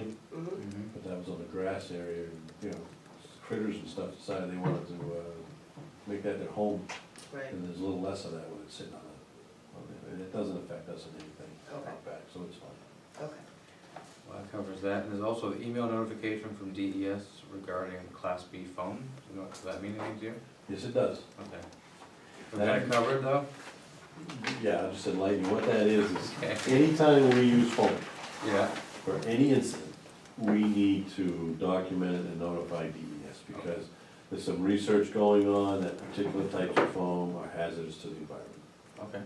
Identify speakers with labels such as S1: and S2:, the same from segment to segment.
S1: Mm-hmm.
S2: grass area, you know, critters and stuff decided they wanted to, uh, make that their home,
S1: right,
S2: and there's a little less of that when it's sitting on it. on there. And it doesn't affect us in anything
S1: Okay.
S2: out back, so it's fine.
S1: okay.
S3: Well, that covers that, and there's also the email notification from DES regarding Class B phone, you know, does that mean anything to you?
S2: Yes, it does.
S3: Okay. Was that covered though?
S2: Yeah, I just enlighten you, what that is, is
S3: Okay.
S2: anytime we use phone
S3: Yeah,
S2: for any incident, we need to document it and notify DES, because there's some research going on that particular types of foam are hazardous to the environment.
S3: okay,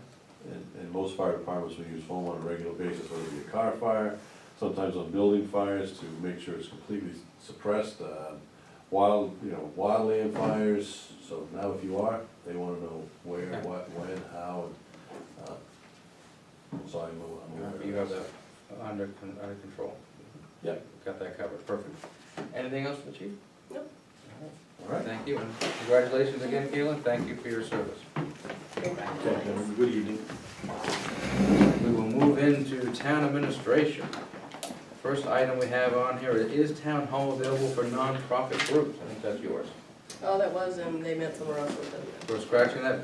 S2: And, and most fire departments will use foam on a regular basis, whether it be a car fire, sometimes on building fires to make sure it's completely suppressed. uh, Wild, you know, wildland fires, so now if you are, they wanna know where,
S3: Okay.
S2: what, when, how, and, uh, so I'm, I'm aware of
S3: you have
S2: that.
S3: that under, con- under control.
S2: Yeah.
S3: Got that covered, perfect. Anything else for the chief?
S1: Nope.
S2: All
S3: All right,
S2: right.
S3: thank you, and congratulations again, Keelan, thank you for your service.
S2: Okay, have a good evening.
S3: We will move into town administration. First item we have on here is town hall available for nonprofit groups, I think that's yours.
S1: All Oh, that was, and they met somewhere else with them.
S3: We're scratching that,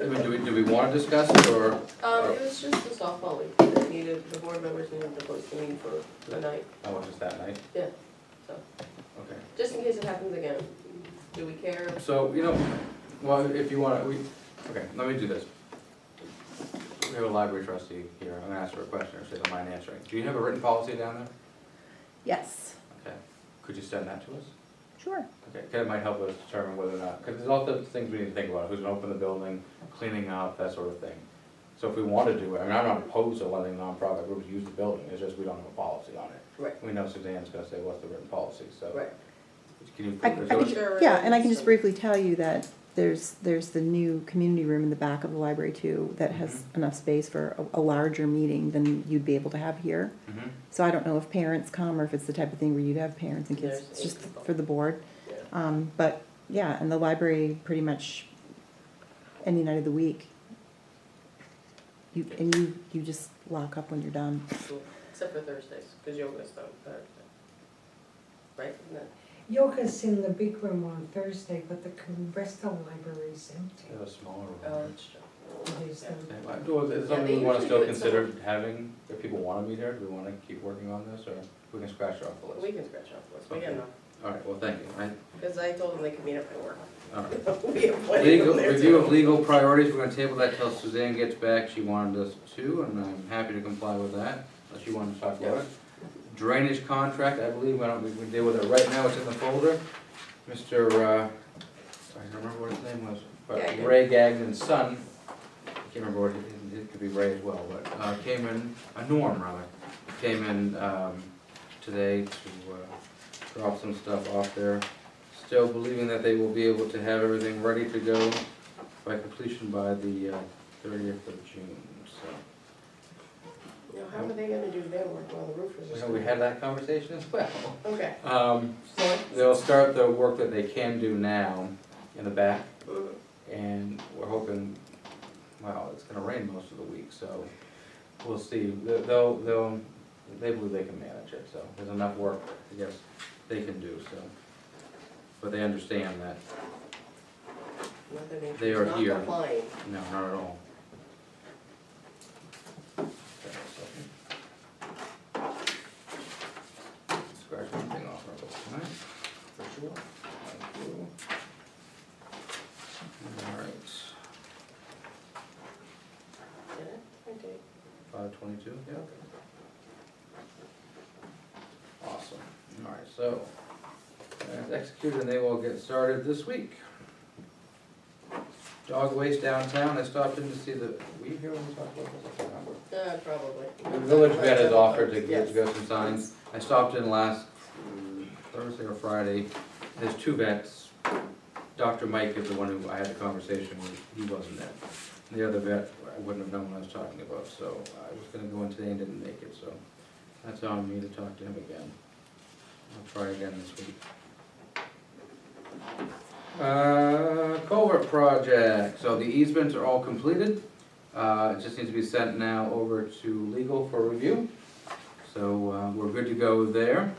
S3: I mean, do we, do we wanna discuss it, or,
S1: Um, it was just the softball league that needed, the board members needed to post a meeting for a night,
S3: oh, it's just that night?
S1: yeah, so,
S3: Okay.
S1: just in case it happens again. Do we care?
S3: So, you know, well, if you wanna, we, okay, let me do this. We have a library trustee here, I'm gonna ask her a question, if she doesn't mind answering. Do you have a written policy down
S4: Yes,
S3: there? Okay, could you send that to us?
S4: sure.
S3: Okay, 'cause it might help us determine whether or not, because there's all the things we need to think about, who's gonna open the building, cleaning up, that sort of thing. So if we want to do it, I mean, I'm not opposed to letting nonprofit groups use the building, it's just we don't have a policy on it.
S1: Right,
S3: We know Suzanne's gonna say, what's the written policy, so.
S1: right,
S3: Can you,
S4: I, I
S3: is
S4: can-
S3: there-
S1: Sure.
S4: yeah, and I can just briefly tell you that there's, there's the new community room in the back of the library too that has
S1: Mm-hmm.
S4: enough space for a, a larger meeting than you'd be able to have here.
S3: Mhm.
S4: So I don't know if parents come or if it's the type of thing where you'd have parents and kids,
S1: There's
S4: it's just
S1: eight people.
S4: for the board.
S1: yeah.
S4: Um, but, yeah, and the library pretty much any night of the week. You, and you, you just lock up when you're done.
S1: Cool. Except for Thursdays, because yoga's on Thursday. Right? Isn't that-
S5: Yoga's in the big room on Thursday, but the con- rest of the library is
S3: They
S5: empty.
S3: have a smaller
S1: Oh,
S3: one.
S1: that's true.
S5: It is, um,
S3: Okay, well, do- Is it
S1: Yeah, they
S3: something we wanna
S1: usually
S3: still
S1: do it so-
S3: consider having, if people wanna be there, do we wanna keep working on this, or we can scratch it off the
S1: We
S3: list?
S1: can scratch off the list, we can, though,
S3: All right, well, thank you, I,
S1: because I told them they could meet up at work.
S3: all right.
S1: We have plenty of
S3: Legal,
S1: them there,
S3: review
S1: too.
S3: of legal priorities, we're gonna table that till Suzanne gets back, she wanted us to, and I'm happy to comply with that, unless you wanted to talk about it. Drainage contract, I believe, why don't we, we deal with it right now, it's in the folder, Mr., uh, I don't remember what his name was, but
S1: Gagnon.
S3: Ray Gagnon's son, I can't remember what, it- it could be Ray as well, but, uh, came in, uh, Norm rather, came in, um, today to, uh, drop some stuff off there. Still believing that they will be able to have everything ready to go by completion by the uh, thirtieth of June, so.
S1: Now, how are they gonna do their work while the roofers are
S3: So we
S1: still?
S3: had that conversation as well.
S1: Okay.
S3: Um,
S1: So,
S3: they'll start the work that they can do now in the back,
S1: mm,
S3: and we're hoping, well, it's gonna rain most of the week, so we'll see. They'll- They'll, they'll, they believe they can manage it, so there's enough work, I guess, they can do, so. But they understand that,
S1: Mother Nature's
S3: They are
S1: not
S3: here.
S1: complying.
S3: no, not at all. Scratch one thing off real quick, alright?
S1: For sure.
S3: Thank you. Alright,
S1: Did it? I did.
S3: five twenty-two, yeah. Awesome, alright, so, that's executed and they will get started this week. Dog waste downtown, I stopped in to see the, were you here when we talked about this? I can't remember.
S1: Uh, probably.
S3: The village vet has offered to get,
S1: Yes.
S3: to go some signs. I stopped in last mm, Thursday or Friday. There's two vets. Dr. Mike is the one who I had the conversation with. He wasn't there. The other vet, I wouldn't have known what I was talking about, so I was gonna go in today and didn't make it, so that's on me to talk to him again. I'll try again this week. Uh, culvert project. So the easements are all completed. Uh, It just needs to be sent now over to legal for review. So uh, we're good to go there.